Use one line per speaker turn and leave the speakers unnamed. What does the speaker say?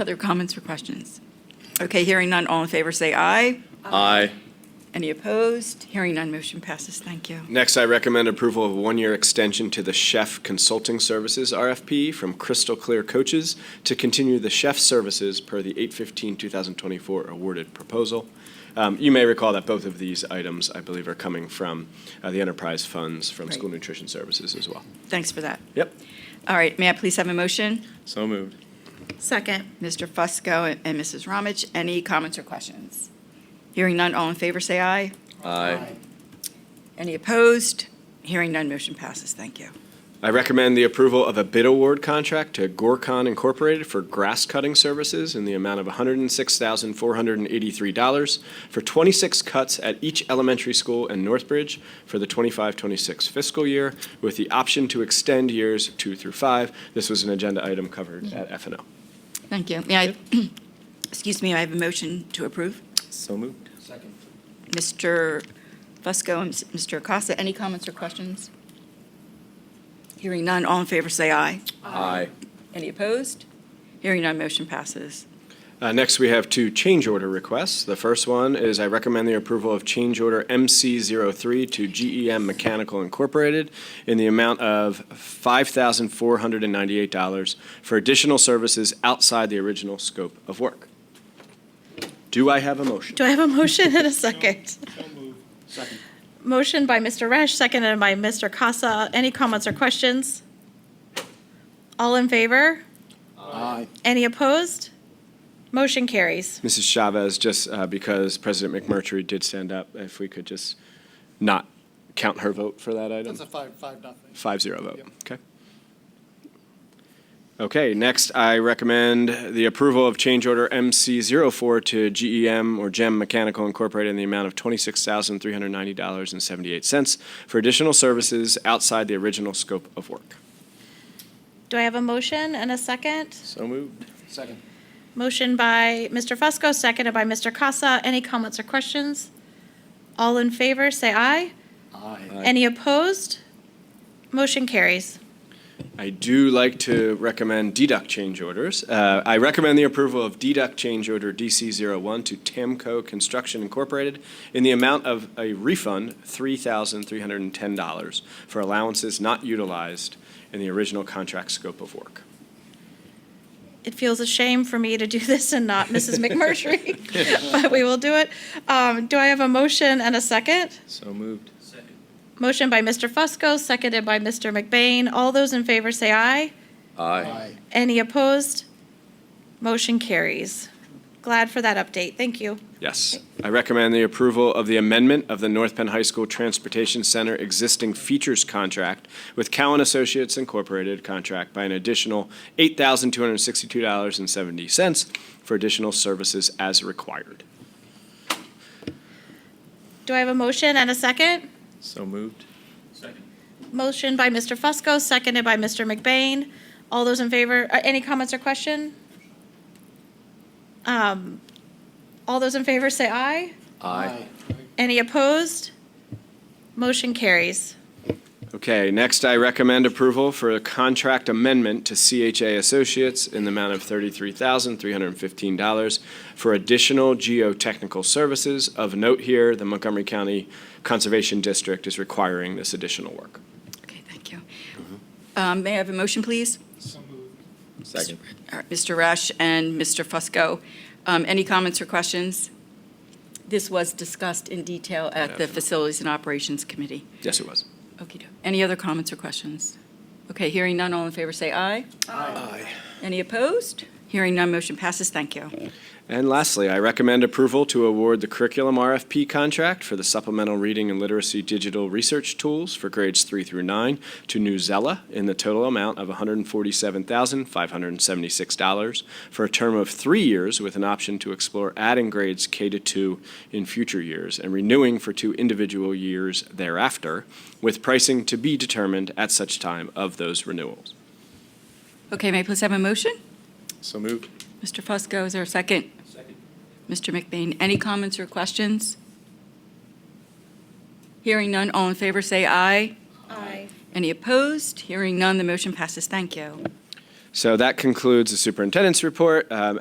Other comments or questions? Okay, hearing none, all in favor say aye.
Aye.
Any opposed? Hearing none, motion passes. Thank you.
Next, I recommend approval of a one-year extension to the Chef Consulting Services RFP from Crystal Clear Coaches to continue the chef services per the 8/15/2024 awarded proposal. Um, You may recall that both of these items, I believe, are coming from uh, the enterprise funds from
Right.
School Nutrition Services as well.
Thanks for that.
Yep.
All right, may I please have a motion?
So moved.
Second.
Mr. Fusco and- and Mrs. Ramich, any comments or questions? Hearing none, all in favor say aye.
Aye.
Any opposed? Hearing none, motion passes. Thank you.
I recommend the approval of a bid award contract to Gorcon Incorporated for grass cutting services in the amount of $106,483 for 26 cuts at each elementary school in Northbridge for the 25-26 fiscal year, with the option to extend years two through five. This was an agenda item covered at F and O.
Thank you. May I, excuse me, I have a motion to approve.
So moved.
Mr. Fusco and Mr. Acosta, any comments or questions? Hearing none, all in favor say aye.
Aye.
Any opposed? Hearing none, motion passes.
Uh, Next, we have two change order requests. The first one is I recommend the approval of change order MC03 to GEM Mechanical Incorporated in the amount of $5,498 for additional services outside the original scope of work. Do I have a motion?
Do I have a motion and a second? Motion by Mr. Resch, seconded by Mr. Casa. Any comments or questions? All in favor? Aye. Any opposed? Motion carries.
Mrs. Chavez, just uh, because President McMurtry did stand up, if we could just not count her vote for that item?
That's a five, five, nothing.
Five zero vote,
Yep.
okay. Okay, next, I recommend the approval of change order MC 4 to GEM or GEM Mechanical Incorporated in the amount of twenty-six thousand, three hundred ninety dollars and seventy-eight cents for additional services outside the original scope of work.
Do I have a motion and a second?
So moved.
Second.
Motion by Mr. Fusco, seconded by Mr. Casa. Any comments or questions? All in favor, say aye.
Aye.
Any opposed? Motion carries.
I do like to recommend deduct change orders. Uh, I recommend the approval of deduct change order DC01 to Tamco Construction Incorporated in the amount of a refund, $3,310, for allowances not utilized in the original contract scope of work.
it feels a shame for me to do this and not Mrs. McMurtry, but we will do it. Um, do I have a motion and a second?
So moved.
Motion by Mr. Fusco, seconded by Mr. McBain. All those in favor say aye.
Aye.
Any opposed? Motion carries. Glad for that update. Thank you.
Yes. I recommend the approval of the amendment of the North Penn High School Transportation Center existing features contract with Cowan Associates Incorporated contract by an additional $8,262.70 for additional services as required.
Do I have a motion and a second?
So moved.
Motion by Mr. Fusco, seconded by Mr. McBain. All those in favor, uh, any comments or question? Um, all those in favor say aye.
Aye.
Any opposed? Motion carries.
Okay, next I recommend approval for a contract amendment to CHA Associates in the amount of $33,315 for additional geotechnical services. Of note here, the Montgomery County Conservation District is requiring this additional work.
Okay, thank you. Um, May I have a motion, please?
Second.
All right, Mr. Resch and Mr. Fusco, um, any comments or questions? This was discussed in detail at the Facilities and Operations Committee.
Yes, it was.
Okay. Any other comments or questions? Okay, hearing none, all in favor say aye.
Aye.
Any opposed? Hearing none, motion passes. Thank you.
And lastly, I recommend approval to award the curriculum RFP contract for the supplemental reading and literacy digital research tools for grades three through nine to New Zella in the total amount of $147,576 for a term of three years with an option to explore adding grades K to two in future years and renewing for two individual years thereafter with pricing to be determined at such time of those renewals.
Okay, may I please have a motion?
So moved.
Mr. Fusco, is there a second? Second. Mr. McBain, any comments or questions? Hearing none, all in favor say aye.
Aye.
Any opposed? Hearing none, the motion passes. Thank you.
So that concludes the superintendent's report. Um,